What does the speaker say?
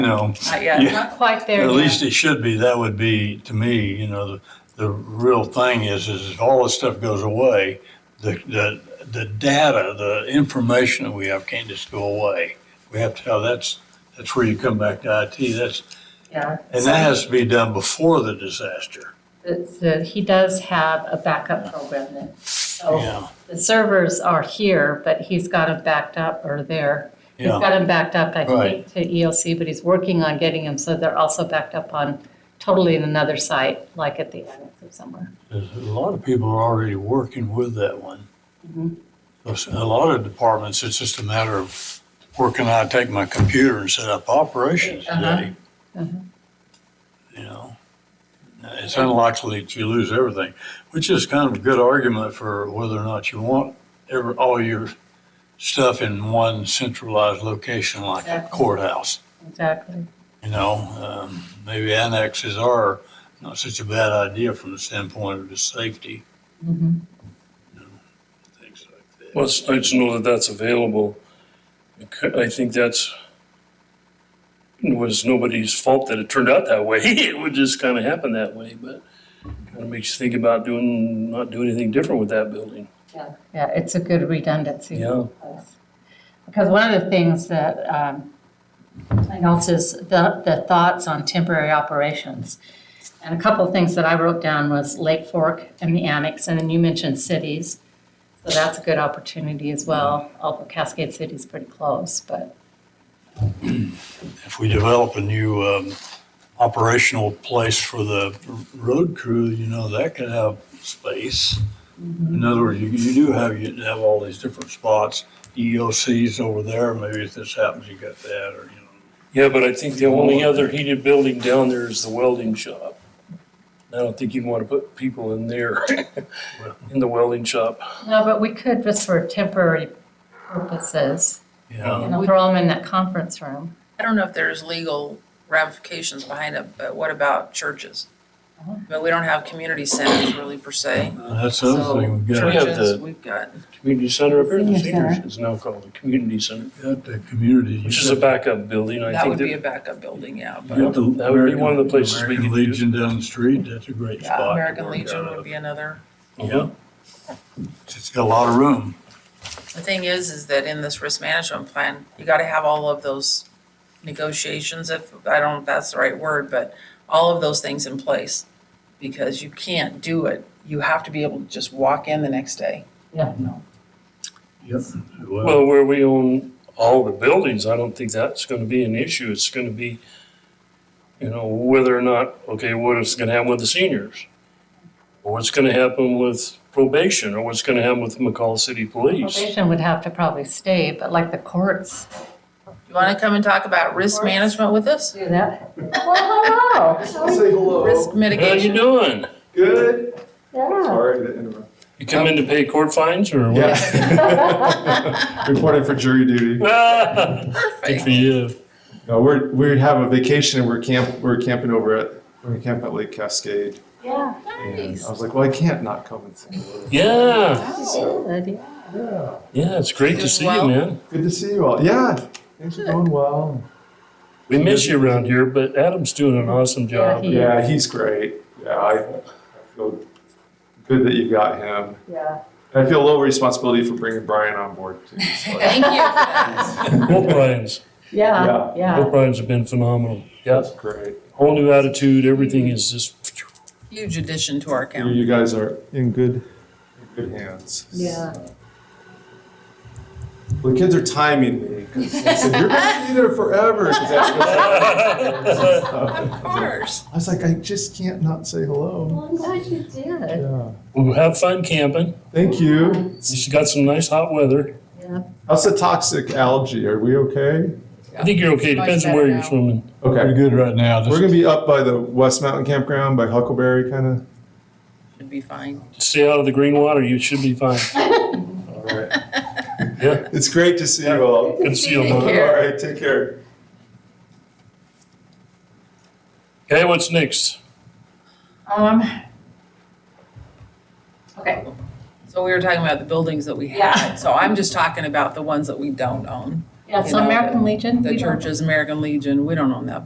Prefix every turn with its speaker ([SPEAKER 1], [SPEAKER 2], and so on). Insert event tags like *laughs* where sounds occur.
[SPEAKER 1] you know,
[SPEAKER 2] Not yet.
[SPEAKER 1] Yeah.
[SPEAKER 3] Not quite there
[SPEAKER 1] at
[SPEAKER 3] yet.
[SPEAKER 1] least it should be, that would be, to me, you know, the, the real thing is, is if all this stuff goes away, the, the, the data, the information that we have can't just go away. We have to, have that's, that's where you come back to IT, that's,
[SPEAKER 3] Yeah.
[SPEAKER 1] and that has to be done before the disaster.
[SPEAKER 3] It's, uh, He does have a backup program then. So
[SPEAKER 1] Yeah,
[SPEAKER 3] the servers are here, but he's got them backed up or there. He's
[SPEAKER 1] yeah,
[SPEAKER 3] got them backed up, I
[SPEAKER 1] Right.
[SPEAKER 3] think, to ELC, but he's working on getting them so they're also backed up on totally in another site, like at the annex or somewhere.
[SPEAKER 1] 'Cause a lot of people are already working with that one.
[SPEAKER 3] Mhm.
[SPEAKER 1] Because A lot of departments, it's just a matter of, where can I take my computer and set up operations
[SPEAKER 3] Uh-huh.
[SPEAKER 1] today?
[SPEAKER 3] Uh-huh.
[SPEAKER 1] you know. It's unlikely that you lose everything, which is kind of a good argument for whether or not you want ever, all your stuff in one centralized location like a
[SPEAKER 3] Exactly.
[SPEAKER 1] courthouse,
[SPEAKER 3] Exactly.
[SPEAKER 1] you know. Um, Maybe annexes are not such a bad idea from the standpoint of the safety,
[SPEAKER 3] Mhm.
[SPEAKER 1] things like that.
[SPEAKER 4] Well, it's nice to know that that's available. I cou- I think that's, it was nobody's fault that it turned out that way. *laughs* It would just kind of happen that way, but kind of makes you think about doing, not doing anything different with that building.
[SPEAKER 3] Yeah, it's a good redundancy.
[SPEAKER 4] Yeah.
[SPEAKER 3] Yes. Because one of the things that um, I noticed is the, the thoughts on temporary operations. And a couple of things that I wrote down was Lake Fork and the annex, and then you mentioned cities. So that's a good opportunity as well, although Cascade City's pretty close, but
[SPEAKER 1] If we develop a new um, operational place for the road crew, you know, that could have space. In other words, you, you do have, you have all these different spots, EOCs over there, maybe if this happens, you got that, or, you know.
[SPEAKER 4] Yeah, but I think the only other heated building down there is the welding shop. I don't think you'd want to put people in there, *laughs* in the welding shop.
[SPEAKER 3] no, but we could just for temporary purposes,
[SPEAKER 1] Yeah,
[SPEAKER 3] you know, throw them in that conference room.
[SPEAKER 2] I don't know if there's legal ramifications behind it, but what about churches?
[SPEAKER 3] Uh-huh.
[SPEAKER 2] But we don't have community centers really per se.
[SPEAKER 1] that's the other thing, we
[SPEAKER 2] So
[SPEAKER 1] got,
[SPEAKER 4] Sure.
[SPEAKER 2] churches,
[SPEAKER 4] the-
[SPEAKER 2] we've got,
[SPEAKER 4] Community center up here, the
[SPEAKER 3] Senior
[SPEAKER 4] seniors
[SPEAKER 3] center.
[SPEAKER 4] is now called the community center,
[SPEAKER 1] got the community.
[SPEAKER 4] which is a backup building. I
[SPEAKER 2] that
[SPEAKER 4] think
[SPEAKER 2] would be a backup building, yeah.
[SPEAKER 1] You
[SPEAKER 2] But
[SPEAKER 1] got the
[SPEAKER 4] That would be one of the places we
[SPEAKER 1] American
[SPEAKER 4] could do.
[SPEAKER 1] Legion down the street, that's a great spot. to
[SPEAKER 2] yeah, American
[SPEAKER 1] work
[SPEAKER 2] Legion
[SPEAKER 1] out
[SPEAKER 2] would
[SPEAKER 1] of.
[SPEAKER 2] be another.
[SPEAKER 1] Yeah, it's got a lot of room.
[SPEAKER 2] The thing is, is that in this risk management plan, you gotta have all of those negotiations, if, I don't, know if that's the right word, but all of those things in place. Because you can't do it. You have to be able to just walk in the next day.
[SPEAKER 3] Yeah.
[SPEAKER 1] Yep.
[SPEAKER 4] Well, where we own all the buildings, I don't think that's gonna be an issue. It's gonna be, you know, whether or not, okay, what is gonna happen with the seniors? Or what's gonna happen with probation, or what's gonna happen with McCall City Police?
[SPEAKER 3] Probation would have to probably stay, but like the courts.
[SPEAKER 2] You wanna come and talk about risk management with us?
[SPEAKER 3] Do that. Well, hello.
[SPEAKER 5] Say hello.
[SPEAKER 2] Risk
[SPEAKER 4] How you
[SPEAKER 2] mitigation? *laughs*
[SPEAKER 4] doing?
[SPEAKER 5] Good.
[SPEAKER 3] *laughs* Yeah.
[SPEAKER 5] Sorry to interrupt.
[SPEAKER 4] You come in to pay court fines or
[SPEAKER 2] *laughs*
[SPEAKER 4] what?
[SPEAKER 5] Reporting for jury
[SPEAKER 4] *laughs*
[SPEAKER 5] duty.
[SPEAKER 4] Good for you.
[SPEAKER 5] No, we're, we have a vacation and we're camp, we're camping over at, we're camping at Lake Cascade.
[SPEAKER 3] Yeah.
[SPEAKER 5] And I was like, well, I can't not come and say hello.
[SPEAKER 4] Yeah,
[SPEAKER 3] Good, yeah.
[SPEAKER 5] Yeah.
[SPEAKER 4] yeah, it's great to
[SPEAKER 2] Doing
[SPEAKER 4] see you,
[SPEAKER 2] well?
[SPEAKER 4] man.
[SPEAKER 5] Good to see you all. Yeah, things are going well.
[SPEAKER 4] We miss you around here, but Adam's doing an
[SPEAKER 3] Yeah,
[SPEAKER 4] awesome job.
[SPEAKER 3] he-
[SPEAKER 5] Yeah, he's great. Yeah, I I feel good that you got him.
[SPEAKER 3] Yeah.
[SPEAKER 5] And I feel a little responsibility for bringing Brian on board too. so-
[SPEAKER 2] *laughs* Thank you for that.
[SPEAKER 4] Both Brian's,
[SPEAKER 3] Yeah,
[SPEAKER 5] Yeah.
[SPEAKER 3] yeah.
[SPEAKER 4] both Brian's have been phenomenal. Yeah,
[SPEAKER 5] That's great.
[SPEAKER 4] whole new attitude, everything is just
[SPEAKER 2] Huge addition to our
[SPEAKER 5] You
[SPEAKER 2] county.
[SPEAKER 5] you guys are in good, in good hands.
[SPEAKER 3] Yeah.
[SPEAKER 5] Well, the kids are timing me because they said, You're going to be there forever. *laughs* 'cause that's
[SPEAKER 4] Well,
[SPEAKER 5] what-
[SPEAKER 2] Of course.
[SPEAKER 5] I was like, I just can't not say hello.
[SPEAKER 3] Well, I'm glad you did.
[SPEAKER 5] Yeah.
[SPEAKER 4] have fun camping.
[SPEAKER 5] Thank you.
[SPEAKER 4] She's got some nice hot weather.
[SPEAKER 5] How's the toxic algae? Are we okay?
[SPEAKER 4] I think you're okay. Depends on where you're swimming.
[SPEAKER 1] Pretty
[SPEAKER 5] Okay.
[SPEAKER 1] good right now,
[SPEAKER 5] We're
[SPEAKER 1] just
[SPEAKER 5] going to be up by the West Mountain Campground by Huckleberry, kind of.
[SPEAKER 2] Should be fine.
[SPEAKER 4] Stay out of the green water. You should be fine.
[SPEAKER 5] All right.
[SPEAKER 4] Yeah.
[SPEAKER 5] *laughs* It's great to see you all.
[SPEAKER 4] Good to see
[SPEAKER 5] *laughs*
[SPEAKER 4] you.
[SPEAKER 5] All
[SPEAKER 4] man.
[SPEAKER 2] care.
[SPEAKER 5] right. Take care.
[SPEAKER 4] Okay, what's next?
[SPEAKER 3] Um. Okay,
[SPEAKER 2] So we were talking about the buildings that we
[SPEAKER 3] Yeah.
[SPEAKER 2] had. So I'm just talking about the ones that we don't own.
[SPEAKER 3] Yeah,
[SPEAKER 2] You
[SPEAKER 3] so
[SPEAKER 2] know,
[SPEAKER 3] American Legion. we
[SPEAKER 2] The
[SPEAKER 3] don't-
[SPEAKER 2] church is American Legion, we don't own that